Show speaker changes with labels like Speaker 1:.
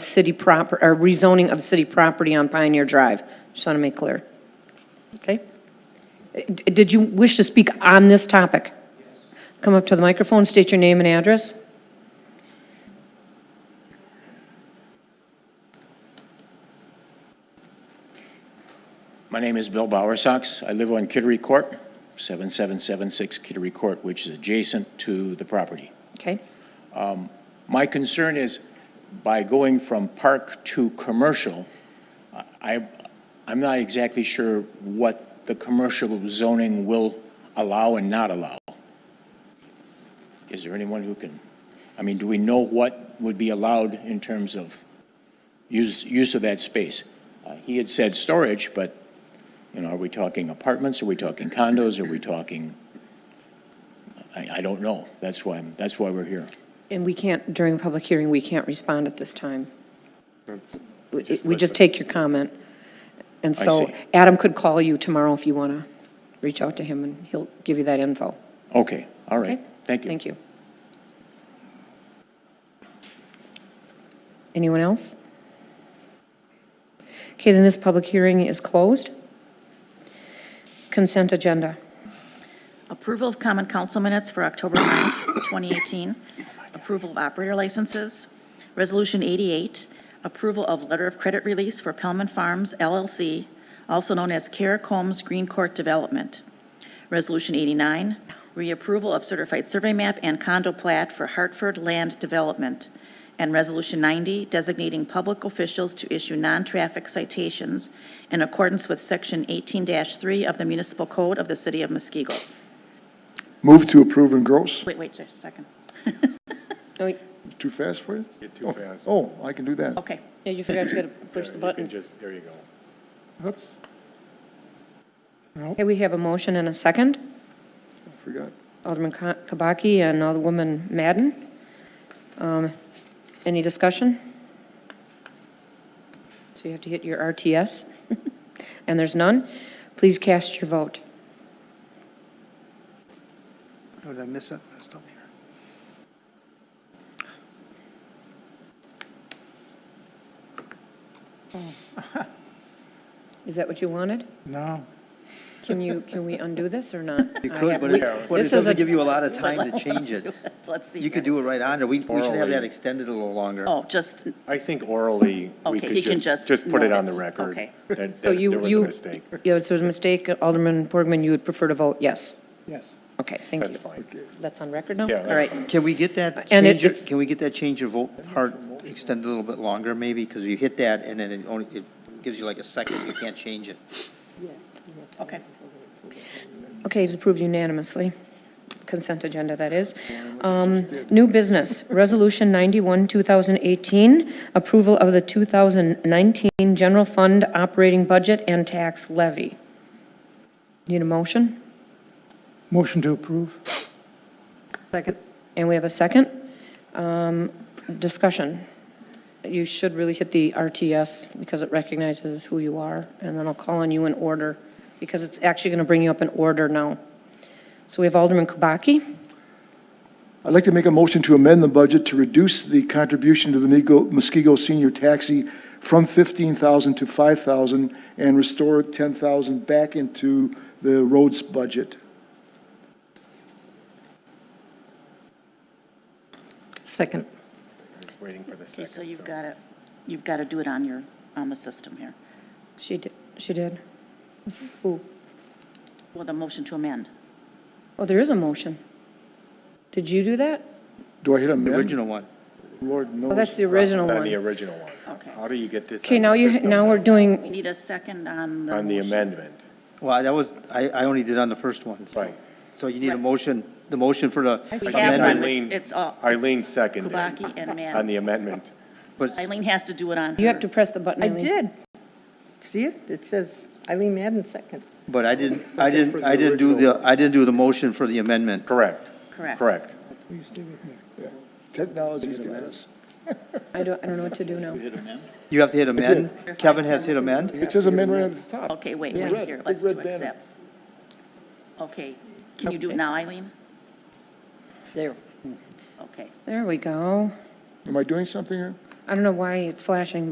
Speaker 1: city proper, or rezoning of city property on Pioneer Drive. Just want to make clear. Okay? D- Did you wish to speak on this topic? Come up to the microphone, state your name and address.
Speaker 2: My name is Bill Bowersox. I live on Kittery Court, 7776 Kittery Court, which is adjacent to the property.
Speaker 1: Okay?
Speaker 2: My concern is by going from park to commercial, I, I'm not exactly sure what the commercial zoning will allow and not allow. Is there anyone who can, I mean, do we know what would be allowed in terms of use, use of that space? Uh, He had said storage, but, you know, are we talking apartments? Are we talking condos? Are we talking? I, I don't know. That's why, I'm- that's why we're here.
Speaker 1: And we can't, during the public hearing, we can't respond at this time. We we just take your comment. And so
Speaker 2: see.
Speaker 1: Adam could call you tomorrow if you want to reach out to him, and he'll give you that info.
Speaker 2: Okay, all right,
Speaker 1: Okay?
Speaker 2: thank you.
Speaker 1: Thank you. Anyone else? Okay, then this public hearing is closed. Consent agenda.
Speaker 3: Approval of common council minutes for October 9th, 2018. Approval of operator licenses. Resolution 88, approval of letter of credit release for Pellman Farms LLC, also known as Care Combs Green Court Development. Resolution 89, reapproval of certified survey map and condo plat for Hartford Land Development. And Resolution 90, designating public officials to issue non-traffic citations in accordance with Section 18-3 of the Municipal Code of the City of Muskego.
Speaker 4: Move to approve and gross.
Speaker 3: Wait, wait, just a second.
Speaker 1: No, you-
Speaker 4: Too fast for you?
Speaker 5: Get too
Speaker 4: Oh,
Speaker 5: fast.
Speaker 4: Oh, I can do that.
Speaker 3: Okay,
Speaker 1: yeah, you forgot to push the
Speaker 5: You can
Speaker 1: buttons.
Speaker 5: just- There you go.
Speaker 4: Oops,
Speaker 1: Okay, we have a motion and a second.
Speaker 4: forgot.
Speaker 1: Alderman Ka- Kabaki and Alderwoman Madden. Um, Any discussion? So you have to hit your RTS, and there's none. Please cast your vote.
Speaker 6: Oh, did I miss it? It's still here.
Speaker 1: Is that what you wanted?
Speaker 6: No.
Speaker 1: Can you, can we undo this or not?
Speaker 7: You
Speaker 1: I
Speaker 7: could,
Speaker 1: have-
Speaker 7: but
Speaker 1: we-
Speaker 7: it, but
Speaker 1: this
Speaker 7: it
Speaker 1: is
Speaker 7: doesn't
Speaker 1: a-
Speaker 7: give you a lot of time to change it.
Speaker 3: let's see.
Speaker 7: You could do it right on there. We, we should have that
Speaker 5: Orally.
Speaker 7: extended a little longer.
Speaker 3: Oh, just,
Speaker 5: I think orally, we
Speaker 3: Okay, he can
Speaker 5: could
Speaker 3: just
Speaker 5: just, just put it
Speaker 3: note
Speaker 5: on the
Speaker 3: it.
Speaker 5: record.
Speaker 3: Okay.
Speaker 5: That,
Speaker 1: So
Speaker 5: that there
Speaker 1: you,
Speaker 5: was a
Speaker 1: you,
Speaker 5: mistake.
Speaker 1: yeah, so it was a mistake. Alderman Borgman, you would prefer to vote yes?
Speaker 6: Yes.
Speaker 1: Okay, thank you.
Speaker 5: That's fine.
Speaker 1: That's on record now?
Speaker 5: Yeah,
Speaker 1: All right.
Speaker 7: Can we get that
Speaker 1: And it
Speaker 7: change, of-
Speaker 1: is-
Speaker 7: can we get that change of vote part extended a little bit longer maybe? Because you hit that and then it only, it gives you like a second, you can't change it.
Speaker 3: okay.
Speaker 1: Okay, it's approved unanimously. Consent agenda, that is. Um, New business, Resolution 91, 2018, approval of the 2019 general fund operating budget and tax levy. Need a motion?
Speaker 6: Motion to approve.
Speaker 1: Second. And we have a second. Um, Discussion. You should really hit the RTS because it recognizes who you are, and then I'll call on you in order, because it's actually going to bring you up in order now. So we have Alderman Kubaki.
Speaker 4: I'd like to make a motion to amend the budget to reduce the contribution to the Migo- Muskego Senior Taxi from 15,000 to 5,000 and restore 10,000 back into the roads budget.
Speaker 1: Second.
Speaker 5: Waiting for the
Speaker 3: Okay, so
Speaker 5: second.
Speaker 3: you've got to, you've got to do it on your, on the system here.
Speaker 1: She did, she did. Who?
Speaker 3: Well, the motion to amend.
Speaker 1: Oh, there is a motion. Did you do that?
Speaker 4: Do I hit
Speaker 7: The
Speaker 4: amend?
Speaker 7: original one.
Speaker 4: Lord knows.
Speaker 1: Oh, that's the original
Speaker 5: That'd be
Speaker 1: one.
Speaker 5: original one.
Speaker 3: Okay.
Speaker 5: How do you get this?
Speaker 1: Okay,
Speaker 5: on
Speaker 1: now
Speaker 5: the
Speaker 1: you,
Speaker 5: system
Speaker 1: now we're
Speaker 3: We
Speaker 1: doing,
Speaker 3: need a second on the.
Speaker 5: On the
Speaker 3: motion.
Speaker 5: amendment,
Speaker 7: Well, that was, I, I only did on the first one.
Speaker 5: right.
Speaker 7: So you need a motion, the motion for the
Speaker 3: We have one,
Speaker 7: amendment,
Speaker 5: Eileen-
Speaker 3: it's, it's all.
Speaker 5: Eileen
Speaker 3: it's
Speaker 5: seconded.
Speaker 3: Kubaki and
Speaker 5: On
Speaker 3: Madden.
Speaker 5: the amendment.
Speaker 7: but
Speaker 3: Eileen has to do it on.
Speaker 1: you have
Speaker 3: her.
Speaker 1: to press the button,
Speaker 8: I
Speaker 1: Eileen.
Speaker 8: did. See it? It says Eileen Madden second.
Speaker 7: But I didn't, I didn't, I didn't do the, I didn't do the motion for the amendment.
Speaker 5: Correct,
Speaker 3: Correct.
Speaker 5: correct.
Speaker 6: Please stay with me.
Speaker 4: Technology's got us.
Speaker 1: I don't, I don't know what to do now.
Speaker 7: You have to hit amend. Kevin has hit amend.
Speaker 4: It says amend right at the top.
Speaker 3: Okay, wait,
Speaker 8: Yeah.
Speaker 3: wait here,
Speaker 4: Big
Speaker 3: let's do
Speaker 4: red banner.
Speaker 3: accept. Okay, can you do it now, Eileen?
Speaker 8: There.
Speaker 3: Okay,
Speaker 1: There we go.
Speaker 4: Am I doing something here?
Speaker 1: I don't know why it's flashing,